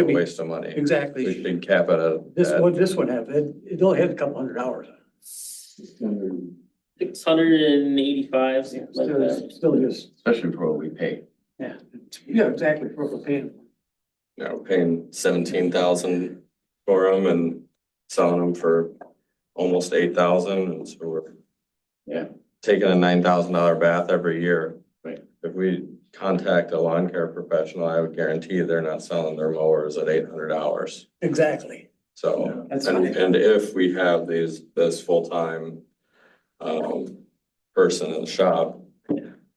Could be, waste of money. We exactly. can cap it at This that. one, this one have, it, it only had a couple hundred hours. on it. Six hundred and eighty-five, Yeah, like Still, that. still just, especially for what we pay. yeah, yeah, exactly, for what we're paying. you know, paying seventeen thousand for them and selling them for almost eight thousand, and so we're Yeah. taking a nine thousand dollar bath every year. Right. If we contact a lawn care professional, I would guarantee you they're not selling their mowers at eight hundred dollars, Exactly. so. That's And, funny. and if we have these, this full-time, um, person in the shop,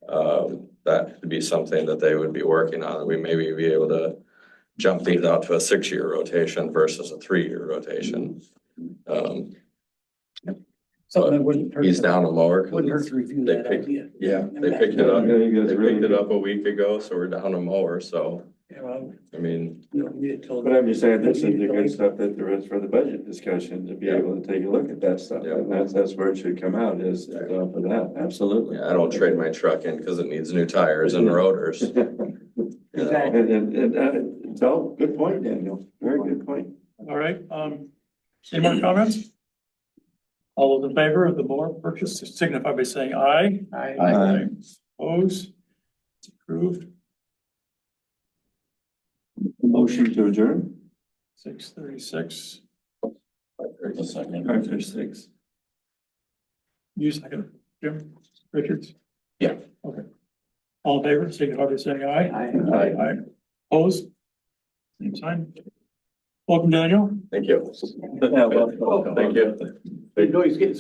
um, that could be something that they would be working on. We maybe be able to jump these out to a six-year rotation versus a three-year rotation. Um, Something that wouldn't hurt, he's down a mower. 'cause wouldn't hurt to review they that pick- idea. Yeah, they picked it up, they picked it up a week ago, so we're down a mower, so, Yeah, well, I mean, you don't need it till- But I'm just saying, this is the good stuff that there is for the budget discussion, to be able to take a look at that stuff. Yeah. And that's, that's where it should come out, is uh, for that, absolutely. I don't trade my truck in because it needs new tires and rotors. you And, know? Exactly. and, and, uh, it's all, good point, Daniel, very good point. All right, um, any more comments? All those in favor of the mower purchase signify by saying aye. I- Aye. Opposed? It's Approved, Motion to adjourn? six thirty-six. Arthur six. You second, Jim, Richards? Yeah. Okay. All in favor, signify by saying aye. I- Aye. Aye. Opposed? Same sign. Welcome, Daniel. Thank you. Yeah, well, Thank you. You know, he's getting